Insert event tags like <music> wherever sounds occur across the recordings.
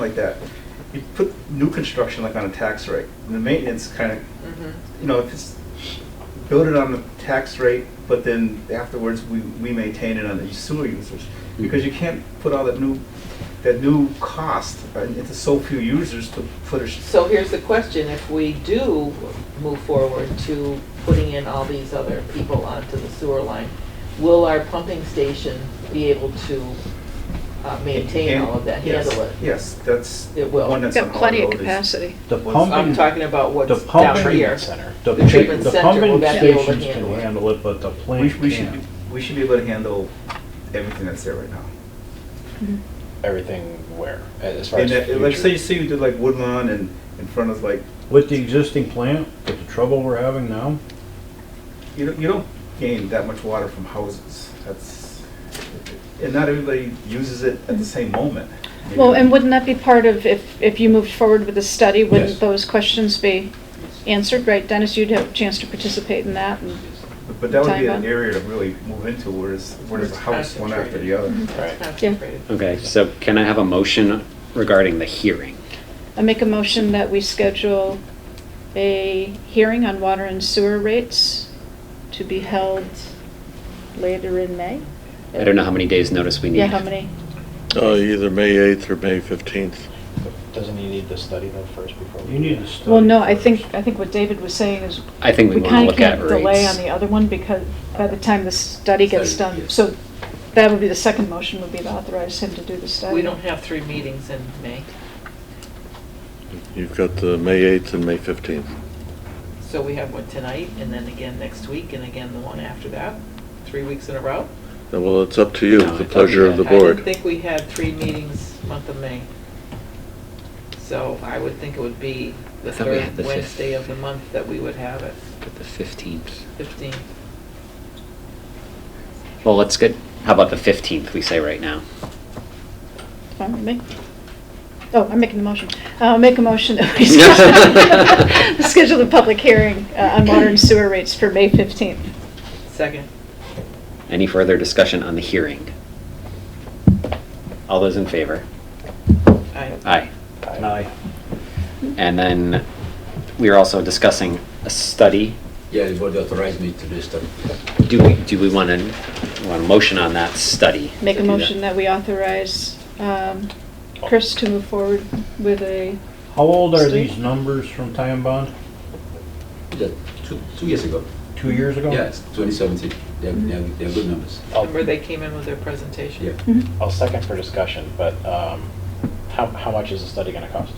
like that, you put new construction like on a tax rate, and the maintenance kind of, Mhm. you know, if it's, build it on the tax rate, but then afterwards, we, we maintain it on the sewer users, because you can't put all that new, that new cost into so few users to put a, s- So here's the question, if we do move forward to putting in all these other people onto the sewer line, will our pumping station be able to uh, maintain all of that, Yes, handle it? Yes, that's. It will. one that's Got on plenty of Hard Road is- capacity. The What's- I'm pumping, talking about the what's pumping. down here. Center. The treatment The center, will pumping that be able to stations can handle it? handle it, but the We, plant we should, can't. be- we should be able to handle everything that's there right now. everything where, as far And as that, like, say, future. say you did like Woodlawn and in front of like, With the existing plant, with the trouble we're having now, you don't, you don't gain that much water from houses. That's, and not everybody uses it at the same moment. Maybe Well, the- and wouldn't that be part of, if, if you moved forward with the study, Yes. wouldn't those questions be answered, right? Dennis, you'd have a chance to participate in that, and But- But that would be an Taiwan. area to really move into, whereas, whereas a It's house, one after the other. Mm-hmm. concentrated. It's Right. concentrated. Okay, so can I have a motion regarding the hearing? I make a motion that we schedule a hearing on water and sewer rates to be held later in May? I don't know how many days' notice we need. Yeah, how many? Uh, either May 8th or May 15th. Doesn't he need to study that first before? we- you need to study. Well, no, I first. think, I think what David was saying is, I think we we want to kind of look at can't rates. delay on the other one, because by the time the study gets Study, done, yes. so that would be the second motion, would be to authorize him to do the study. We don't have three meetings in May, You've got the May 8th and May 15th. so we have one tonight, and then again next week, and again the one after that, three weeks in a row. Uh, Well, it's up to you, No, it's the up to pleasure of you. the I didn't board. think we had three meetings month of May. So I would think it would be the I thought we third had the fifth. Wednesday of the month that we would have it, But the 15th. 15th. Well, let's get, how about the 15th, we say right now? Fine with me. Oh, I'm making the motion. I'll make a motion that we schedule- <laughs> schedule the public hearing uh, on water and sewer rates for May 15th. Second. Any further discussion on the hearing? All those in favor? I- Aye. Aye. And then we are also discussing a study. Yeah, the board authorized me to do stuff. Do we, do we want to, want a motion on that study? Make to a do motion that we authorize um, Chris to move forward with a, How old are Steve? these numbers from Time Bond? Yeah, two, two years ago. Two years ago? Yeah, it's 2017. They're, they're, they're good numbers. I'll- Remember they came in with their presentation? Yeah. Mhm. I'll second for discussion, but um, how, how much is the study gonna cost?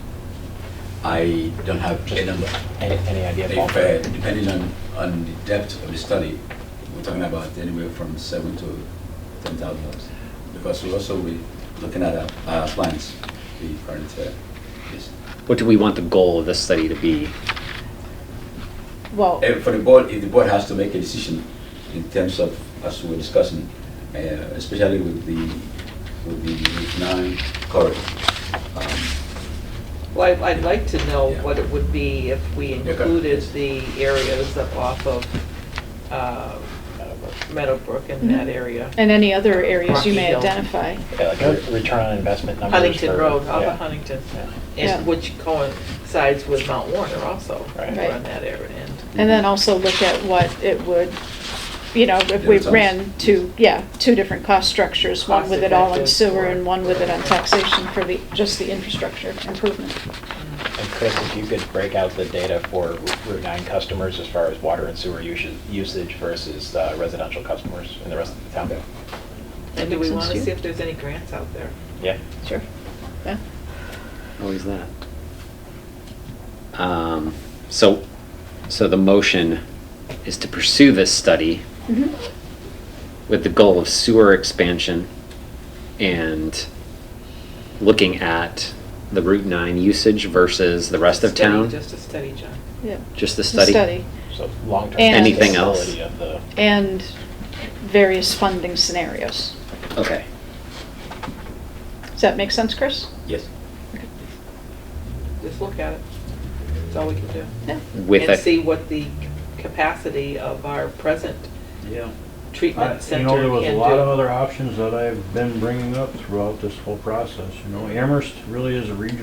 I don't have a number. Any, any idea? If, Paul? uh, depending on, on the depth of the study, we're talking about anywhere from seven to ten thousand dollars. Because we also we looking at our, our plans, the current, uh, yes. What do we want the goal of this study to be? well, Eh, For the board, if the board has to make a decision in terms of, as we were discussing, uh, especially with the, with the Route nine corridor. um, Well, I'd- I'd like to know Yeah. what it would be if we Okay. included the areas up off of uh, Meadowbrook and that area. Mm-hmm. and any other areas you may Rocky Hill. identify. Yeah, Uh, like a return on investment numbers. Huntington for- Road, off yeah. of Huntington, Yeah. and which coincides with Mount Warner also, Right. around that area. And And then also look at what it would, you know, if we Yeah, sounds- ran two, yeah, two different cost structures, one with it all on Cost-effective sewer for- and one with it on taxation for the, just the infrastructure improvement. And Chris, if you could break out the data for Route 9 customers as far as water and sewer usu- usage versus uh, residential customers in the rest of the town? And do makes we sense want to to you? see if there's any grants out there? Yeah? Sure. Yeah. Always that. Um, so, so the motion is to pursue this study Mhm. with the goal of sewer expansion and looking at the Route 9 usage versus the rest of Study, town? Just a study, John. Yeah. Just the The study? Study, So long-term. And- Anything else? sustainability Of the, and various funding scenarios. Okay. Does that make sense, Chris? Yes. Just look at it. That's all we can do. Yeah. With And a see what the capacity of our present I- treatment You know, center there was a can lot of do. other options that I've been bringing up throughout this whole process, you know, Amherst really is a regional